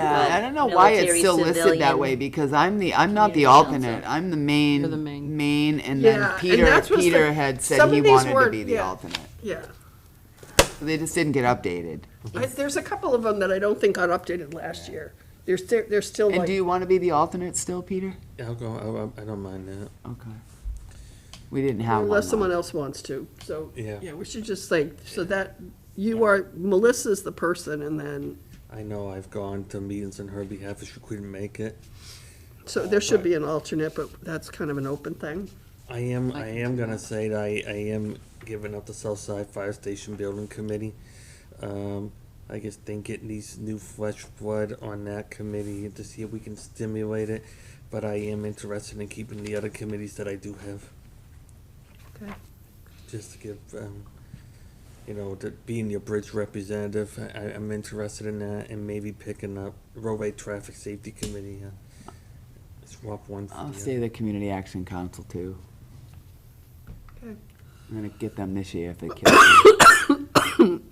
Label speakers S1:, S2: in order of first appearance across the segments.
S1: I don't know why it's
S2: military,
S1: still listed that
S2: civilian.
S1: way, because I'm the, I'm not the
S2: Community council.
S1: alternate, I'm the main,
S3: You're the main.
S1: main, and
S4: Yeah,
S1: then
S4: and
S1: Peter,
S4: that's what's the-
S1: Peter had said
S4: some
S1: he
S4: of these
S1: wanted to
S4: were-
S1: be the
S4: yeah.
S1: alternate.
S4: Yeah.
S1: They just didn't get updated.
S4: I, there's a couple of them that I don't think got updated last year. They're still, they're still
S1: And
S4: like,
S1: do you want to be the alternate still, Peter?
S5: I'll go, I'll- I, I don't mind that.
S1: Okay. We didn't have one.
S4: unless someone
S1: last-
S4: else wants to, so.
S5: Yeah.
S4: Yeah, we should just say, so that, you are, Melissa's the person and then,
S5: I know I've gone to meetings on her behalf if she couldn't make it.
S4: so there should be an alternate, but that's kind of an open thing.
S5: I am, I am gonna say that I, I am giving up the Southside Fire Station Building Committee. Um, I just think it needs new flesh blood on that committee to see if we can stimulate it. But I am interested in keeping the other committees that I do have,
S4: Okay.
S5: just to give, um, you know, to being your bridge representative, I, I- I'm interested in that and maybe picking up roadway traffic safety committee. uh, Swap one for the
S1: I'll
S5: other.
S1: say the Community Action Council too.
S4: Okay.
S1: I'm gonna get them this year if they can.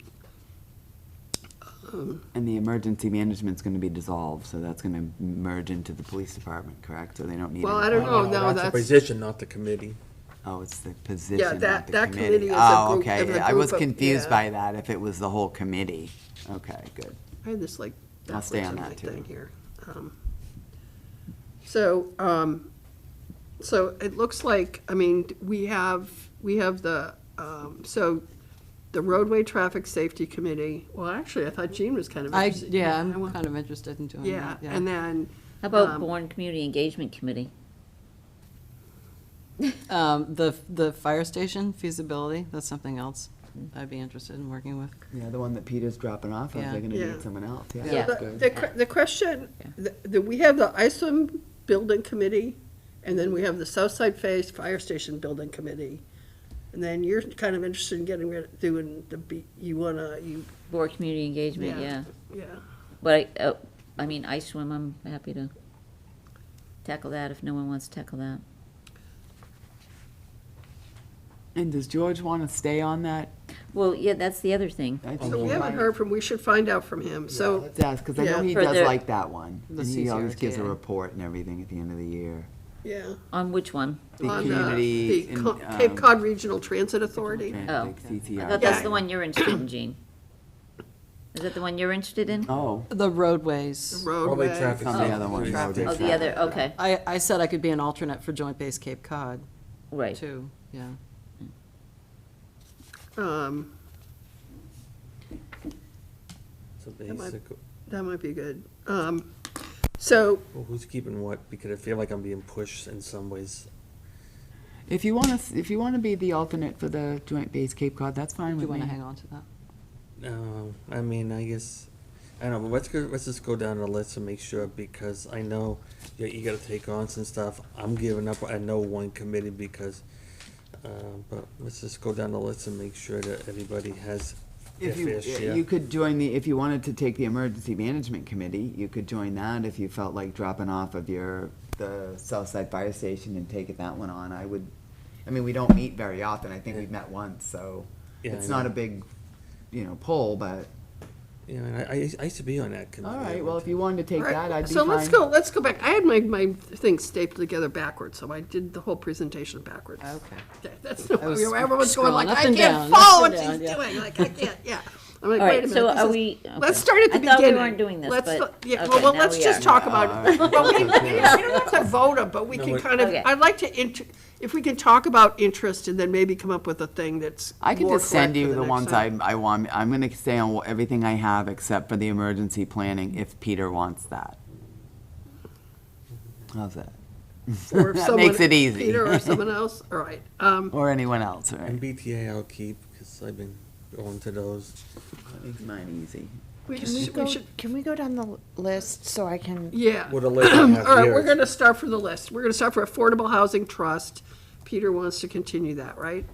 S4: Um.
S1: And the emergency management's gonna be dissolved, so that's gonna merge into the police department, correct? So they don't need.
S4: Well,
S1: any-
S4: I don't know,
S5: Oh, No,
S4: no,
S5: the
S4: that's,
S5: Position, not the committee.
S1: Oh, it's the position, not
S4: that-
S1: the
S4: that
S1: committee.
S4: committee is a
S1: Oh,
S4: group-
S1: okay.
S4: of a
S1: yeah, I was
S4: group of-
S1: confused
S4: yeah.
S1: by that, if it was the whole committee. Okay, good.
S4: I had this like
S1: I'll stay
S4: backwards
S1: on
S4: in my
S1: that, too.
S4: thing here. Um, So, um, so it looks like, I mean, we have, we have the, um, so the roadway traffic safety committee, well, actually, I thought Jean was kind of
S3: I,
S4: interested.
S3: yeah,
S4: I
S3: I'm
S4: want-
S3: kind of interested in doing
S4: Yeah,
S3: that, yeah.
S4: and then,
S2: How about
S4: Um,
S2: Bourne Community Engagement Committee?
S3: Um, the, the fire station feasibility, that's something else I'd be interested in working with.
S1: Yeah, the one that Peter's dropping off,
S3: Yeah.
S1: they're gonna
S4: Yeah.
S1: need someone else,
S2: Yeah.
S1: yeah.
S4: the, the que- the question, the- the, we have the ISOM building committee, and then we have the Southside Phase Fire Station Building Committee. And then you're kind of interested in getting rid, doing the, B- you wanna, you,
S2: Bourne Community Engagement,
S4: Yeah.
S2: yeah.
S4: yeah,
S2: But, I- uh, I mean, I swim, I'm happy to tackle that if no one wants to tackle that.
S1: And does George wanna stay on that?
S2: Well, yeah, that's the other thing.
S1: I think
S4: so
S1: he
S4: we haven't
S1: might.
S4: heard from, we should find out from him, so,
S1: Let's ask, cause I
S4: Yeah.
S1: know he
S2: For
S1: does
S2: the-
S1: like that one.
S3: The
S1: And he always gives a
S3: CCRTA.
S1: report and everything at the end of the year.
S4: yeah.
S2: On which one?
S1: The
S4: on, uh,
S1: community.
S4: the
S1: in,
S4: Co- Cape
S1: um,
S4: Cod Regional Transit Authority.
S1: Atlantic
S2: Oh. I
S1: CCRTA.
S2: thought that's the one you're interested in, Jean. Is that the one you're interested in?
S1: Oh,
S3: The roadways.
S5: Probably
S4: Roadway,
S5: traffic.
S1: On the
S5: safety
S1: other one,
S5: committee.
S1: traffic.
S2: Oh, the other, okay,
S3: I, I said I could be an alternate for Joint Base Cape Cod,
S2: right.
S3: too, yeah.
S4: um,
S5: So
S4: Am I-
S5: basic,
S4: that might be good. Um, so,
S5: well, who's keeping what? Because I feel like I'm being pushed in some ways.
S1: If you want to, if you want to be the alternate for the Joint Base Cape Cod, that's fine
S3: Do you
S1: with
S3: want
S1: me.
S3: to hang on to that?
S5: Um, I mean, I guess, I don't know, but let's go, let's just go down the list and make sure, because I know you, you gotta take on some stuff. I'm giving up, I know one committee because, uh, but let's just go down the list and make sure that everybody has their
S1: If you,
S5: fair share.
S1: you could join the, if you wanted to take the Emergency Management Committee, you could join that if you felt like dropping off of your, the Southside Fire Station and taking that one on. I would, I mean, we don't meet very often. I think we've met once, so
S5: Yeah,
S1: it's
S5: I know.
S1: not a big, you know, pull, but,
S5: Yeah, and I, I used- I used to be on that committee.
S1: all right, well, if you wanted to take that, I'd be
S4: so let's
S1: fine.
S4: go, let's go back. I had my, my things stapled together backwards, so I did the whole presentation backwards.
S3: Okay.
S4: Okay, That's, no-
S3: I was
S4: everyone's going
S3: scrolling
S4: like,
S3: up
S4: I
S3: and
S4: can't
S3: down,
S4: follow
S3: up
S4: what
S3: and
S4: she's
S3: down,
S4: doing, like, I can't, yeah. I'm like,
S2: All
S4: wait a
S2: right,
S4: minute.
S2: so
S4: this
S2: are
S4: is-
S2: we?
S4: Let's
S2: okay.
S4: start at the
S2: I
S4: beginning.
S2: thought we weren't doing this,
S4: Let's
S2: but.
S4: th- Yeah,
S2: okay,
S4: well, well,
S2: now
S4: let's
S2: we
S4: just
S2: are.
S4: talk about it. Well, we, we don't have to vote on, but we
S5: No,
S4: can
S5: we-
S4: kind of,
S2: Okay.
S4: I'd like to, int- if we can talk about interest and then maybe come up with a thing that's
S1: I could
S4: more
S1: just send
S4: correct for
S1: you the
S4: next
S1: ones I,
S4: time.
S1: I want, I'm gonna stay on everything I have except for the emergency planning if Peter wants that. How's that?
S4: Or if
S1: that
S4: someone-
S1: makes it easy.
S4: Peter or someone else, all right. Um,
S1: Or anyone else, right?
S5: MBTA I'll keep, because I've been going to those.
S1: That makes mine easy.
S4: we
S6: Can we
S4: just, we
S6: go,
S4: should,
S6: can we go down the l- list so I can,
S4: yeah.
S5: With a list I have
S4: All right,
S5: here.
S4: we're gonna start from the list. We're gonna start for Affordable Housing Trust. Peter wants to continue that, right?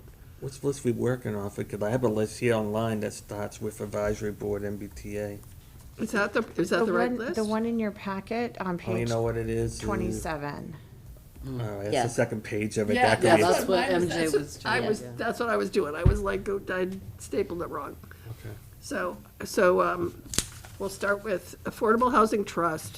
S5: What's list we working off of? Because I have a list here online that starts with advisory board MBTA.
S4: Is that the, is
S6: the
S4: that the right
S6: one,
S4: list?
S6: the one in your packet on
S5: Oh, you
S6: page
S5: know what it is?
S6: twenty-seven?
S5: All right, that's
S2: Yeah.
S5: the second page of it.
S4: Yeah,
S5: That could
S3: yeah,
S5: be-
S3: that's what
S4: mine was-
S3: MJ
S4: that's
S3: was
S4: what I
S3: doing,
S4: was,
S3: yeah.
S4: that's what I was doing. I was like, go, I stapled it wrong.
S5: Okay.
S4: So, so, um, we'll start with Affordable Housing Trust.